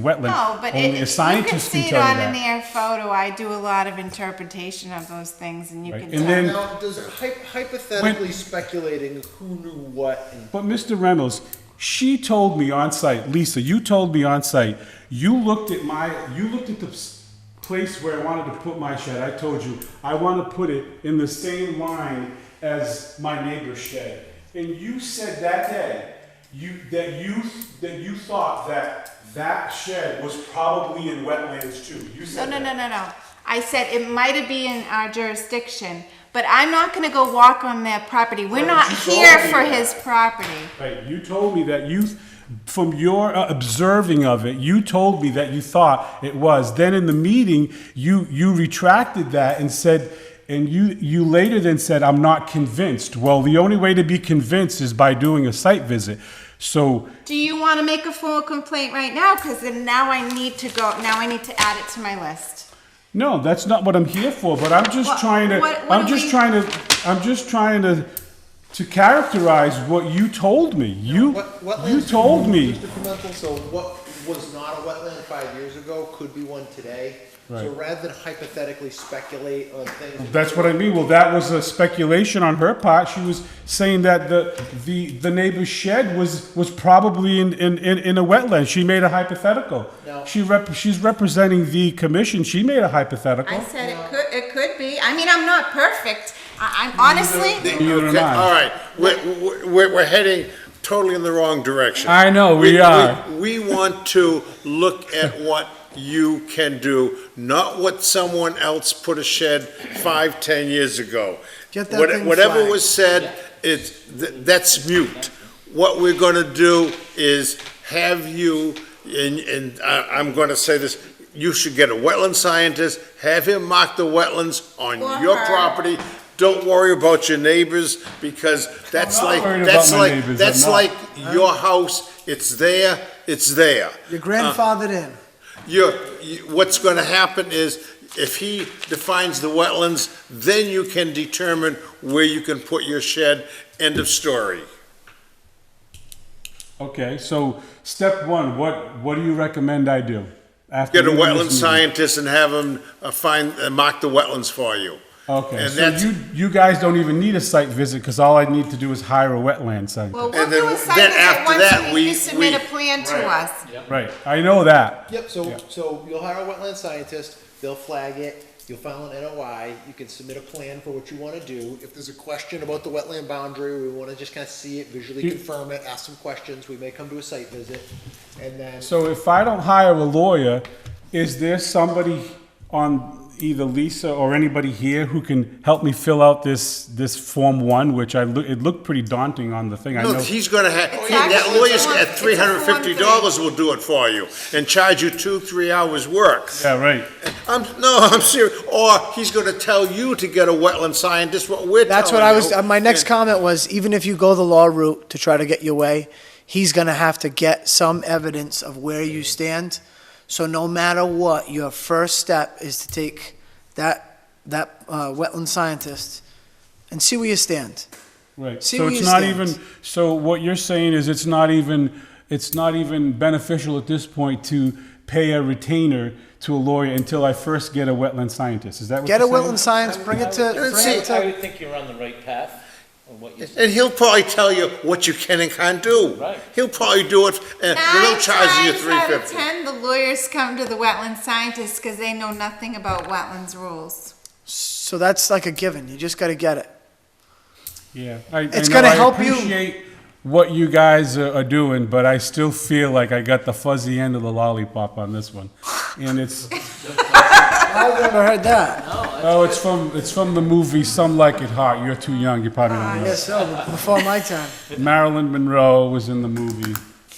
wetland. No, but only it, you a signage can see it tell you on that, an air photo. I do a lot of interpretation of those things and you right? can And tell. then, Now, does hy- hypothetically speculating who knew what and e- but Mr. Reynolds, she told me on site, Lisa, you told me on site, you looked at my, you looked at the s- place where I wanted to put my shed. I told you, I want to put it in the same line as my neighbor's shed. And you said that day, you, that you, that you thought that that shed was probably in wetlands too. You No, said no, that. no, no, no. I said it might have been in our jurisdiction, but I'm not gonna go walk on their property. Right, We're not but you here told me for that. his property. Right, you told me that you, from your uh, observing of it, you told me that you thought it was. Then in the meeting, you, you retracted that and said, and you, you later then said, I'm not convinced. Well, the only way to be convinced is by doing a site visit. So, Do you wanna make a formal complaint right now? Cause then now I need to go, now I need to add it to my list. no, that's not what I'm here for, but I'm What- just trying to, what- what I'm do just we- trying to, I'm just trying to, to characterize what you told me. You, What, wetlands? you told me. Mr. Pimentel, so what was not a wetland five years ago could be one today. So Right. rather than hypothetically speculate on things. That's what I mean. Well, that was a speculation on her part. She was saying that the the, the neighbor's shed was was probably in, in, in, in a wetland. She made a hypothetical. No. She rep, she's representing the commission. She made a hypothetical. I said it could, it could be. I mean, I'm not perfect. I, I'm honestly, Neither am Okay, I. All right, we're, we're, we're heading totally in the wrong direction. I know, we are. We want to look at what you can do, not what someone else put a shed five, ten years ago. Get that What- thing Whatever flagged. was said, it's, th- that's mute. What we're gonna do is have you, and, and I, I'm gonna say this, you should get a wetland scientist, have him mark the wetlands on Or your her. property. Don't worry about your neighbors, because that's not like, worried about that's my like, neighbors, that's I'm not. like your house, it's there, it's there. You're grandfathered Uh. in. You're, you- what's gonna happen is, if he defines the wetlands, then you can determine where you can put your shed, end of story. Okay, so step one, what what do you recommend I do? After Get a leaving wetland this meeting? scientist and have him uh, find, uh, mark the wetlands for you. Okay, And so that's- you you guys don't even need a site visit because all I need to do is hire a wetland site. well, we'll And do then- a site then visit after once that, we- you we- submit we- a plan to us. right, I know that. Yep, so, so you'll hire a wetland scientist, they'll flag it, you'll file an NOI, you can submit a plan for what you wanna do. If there's a question about the wetland boundary, we wanna just kinda see it, visually You- confirm it, ask some questions, we may come to a site visit. And then, So if I don't hire a lawyer, is there somebody on either Lisa or anybody here who can help me fill out this, this Form One, which I, loo- it looked pretty daunting on the thing, I No, know. he's gonna have, It's that actually lawyer's one- at it's a three hundred and fifty dollars form will do it for you, and charge you two, three hours' work. Yeah, right. I'm, no, I'm serious, or he's gonna tell you to get a wetland scientist, what we're telling you. That's what I was, uh, my next and- comment was, even if you go the law route to try to get your way, he's gonna have to get some evidence of where you stand. So no matter what, your first step is to take that, that, uh, wetland scientist and see where you stand. Right, See so where it's you not stand. even, so what you're saying is it's not even, it's not even beneficial at this point to pay a retainer to a lawyer until I first get a wetland scientist, is that what Get a you're saying? wetland scientist, bring it to, bring see, it I to, would think you're on the right path on what you said. And he'll probably tell you what you can and can't do. Right. He'll probably do it, and they Nine don't charge you times three out of fifty. ten, the lawyers come to the wetland scientists because they know nothing about wetlands rules. so that's like a given, you just gotta get it. Yeah, I, It's I know gonna I help you. appreciate what you guys are, are doing, but I still feel like I got the fuzzy end of the lollipop on this one, and it's I've never heard that. oh, it's from it's from the movie Some Like It Hot. You're too young. You probably don't I know. guess so, but before my time. Marilyn Monroe was in the movie.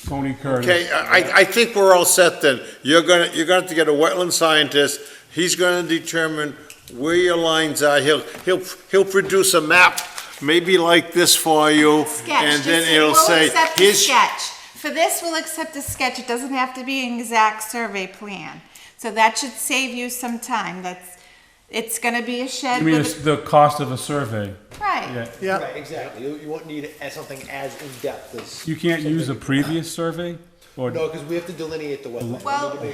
Tony Curtis. Okay, uh, I, I- I think we're all set then. You're gonna, you're gonna have to get a wetland scientist. He's gonna determine where your lines are. He'll, he'll, he'll produce a map, maybe like this for you. Sketch. And just then say, it'll we'll say, accept a here's, sketch. For this, we'll accept a sketch. It doesn't have to be an exact survey plan. So that should save you some time. That's, it's gonna be a I shed mean, with it's the cost of a survey. a, right. Yeah, Yeah, right, exactly, you, you won't need as- something as in-depth as. you can't use a previous survey. Or- No, because we have to delineate the wetland. We need to Well, make